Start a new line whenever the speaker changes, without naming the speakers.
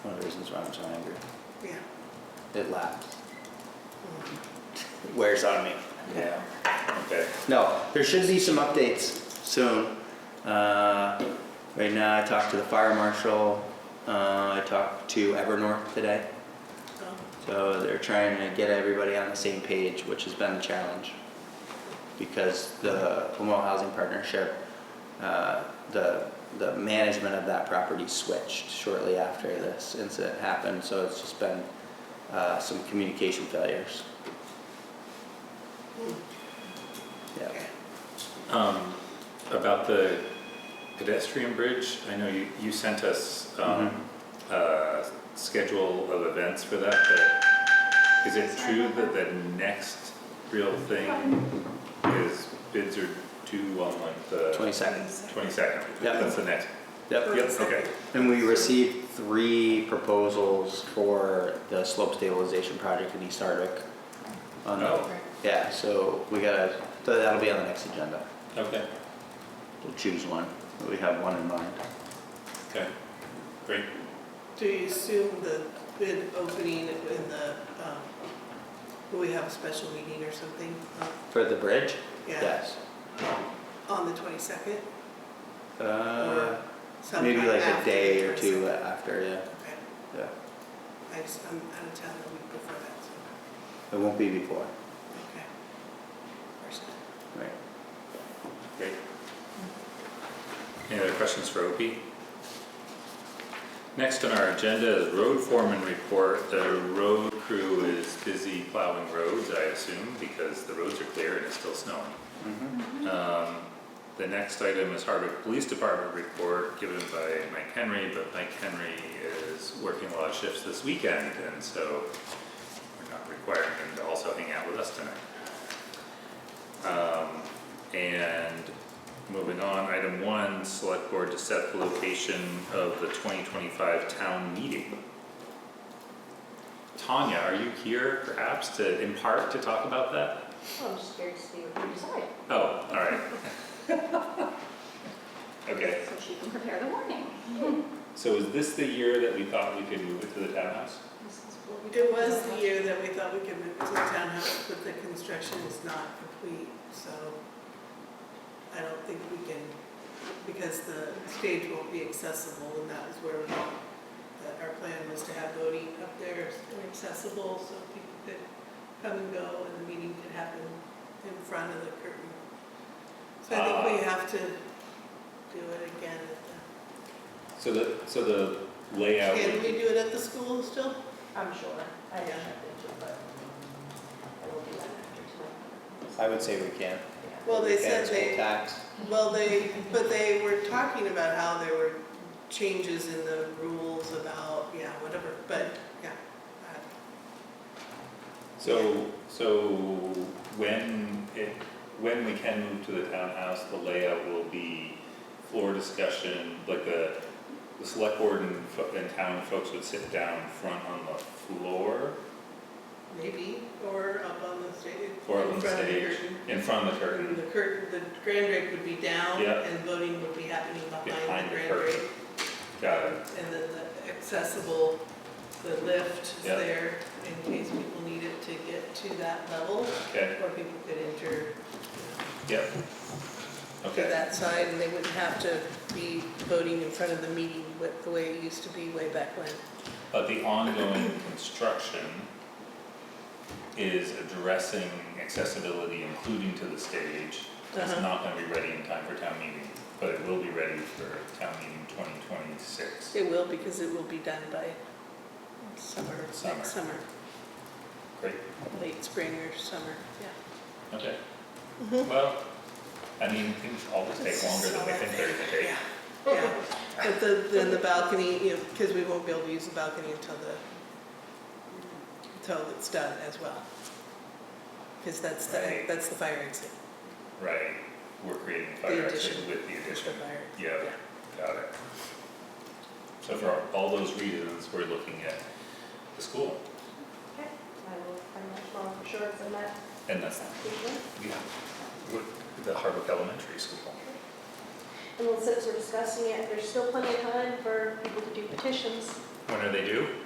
that's why I'm so angry.
Yeah.
It lasts. It Wears on me. Yeah.
Okay.
No, there should be some updates soon. Uh, right now, I talked to the fire marshal. Uh, I talked to Evernorth today. So they're trying to get everybody on the same page, which has been a challenge. Because the Lemoore Housing Partnership, uh, the, the management of that property switched shortly after this incident happened. So it's just been uh, some communication failures. Yeah.
Um, about the pedestrian bridge, I know you, you sent us, um,
Mm-hmm.
a schedule of events for that, but is it true that the next real thing is bids are due on like the
22nd.
twenty-second?
Yeah.
That's the next,
Yep.
yep, okay.
And we received three proposals for the slope stabilization project in East Hardwick. on the-
Oh,
Yeah, so we gotta, so that'll be on the next agenda.
okay,
We'll choose one. We have one in mind.
okay, great.
Do you assume the bid opening in the, um, will we have a special meeting or something? Uh,
For the bridge?
Yeah,
Yes.
on the 22nd?
Uh,
Sometime
maybe like a
after
day
the
or two
22nd.
after, yeah,
Okay.
yeah.
I just, I'm out of town the week before that, so,
It won't be before,
okay. First time.
right?
Great. Any other questions for Opie? Next on our agenda is road foreman report. The road crew is busy plowing roads, I assume, because the roads are clear and it's still snowing. Um, The next item is Hardwick Police Department report given by Mike Henry, but Mike Henry is working a lot of shifts this weekend, and so we're not requiring him to also hang out with us tonight. Um, and moving on, item one, select board to set the location of the twenty twenty-five town meeting. Tanya, are you here perhaps to, in part, to talk about that?
Well, I'm just curious to see what you decide,
Oh, all right. Okay,
so she can prepare the warning.
so is this the year that we thought we could move it to the townhouse?
This is what we-
It was the year that we thought we could move to the townhouse, but the construction is not complete, so I don't think we can, because the stage won't be accessible, and that was where we, that our plan was to have voting up there and accessible, so people could come and go, and the meeting could happen in front of the curtain. So I think
Uh,
we have to do it again. at
So the, so the layout.
the- Can we do it at the school still?
I'm sure, I haven't checked into it, but I will do that after tonight.
I would say we can.
Yeah.
Well, they
We can,
said
school
they,
tax.
Well, they, but they were talking about how there were changes in the rules about, yeah, whatever, but, yeah. uh,
So, so when it, when we can move to the townhouse, the layout will be floor discussion, like the, the select board and, fo- and town folks would sit down front on the floor
Maybe, or up on the stage.
or
in
on the
front of the
stage,
curtain.
in front of the
And
curtain.
The curtain, the grand rake would be down
Yeah.
and voting would be happening
Behind
behind
the
the grand
curtain.
rake.
Got it,
And then the accessible, the lift is
Yeah.
there in case people need it to get to that level,
okay,
or people could enter
yeah.
to
Okay,
that side, and they wouldn't have to be voting in front of the meeting with the way it used to be way back when.
but the ongoing construction is addressing accessibility, including to the stage. It's
Uh-huh.
not gonna be ready in time for town meeting, but it will be ready for town meeting twenty twenty-six.
It will, because it will be done by summer,
Summer.
next summer,
Great,
late spring or summer, yeah.
okay.
Mm-hmm.
Well, I mean, things always take longer than we think they're gonna take.
Yeah, yeah. But the, then the balcony, you know, because we won't be able to use the balcony until the, until it's done as well. Because that's the,
Right.
that's the fire exit,
Right, we're creating a fire exit
addition.
with the
the
addition.
fire.
Yeah, got it. So for all those reasons, we're looking at the school,
Okay, I will find out tomorrow for sure, it's in that
and that's,
application.
yeah, with the Hardwick Elementary School.
And then since we're discussing it, there's still plenty of time for people to do petitions.
When are they due?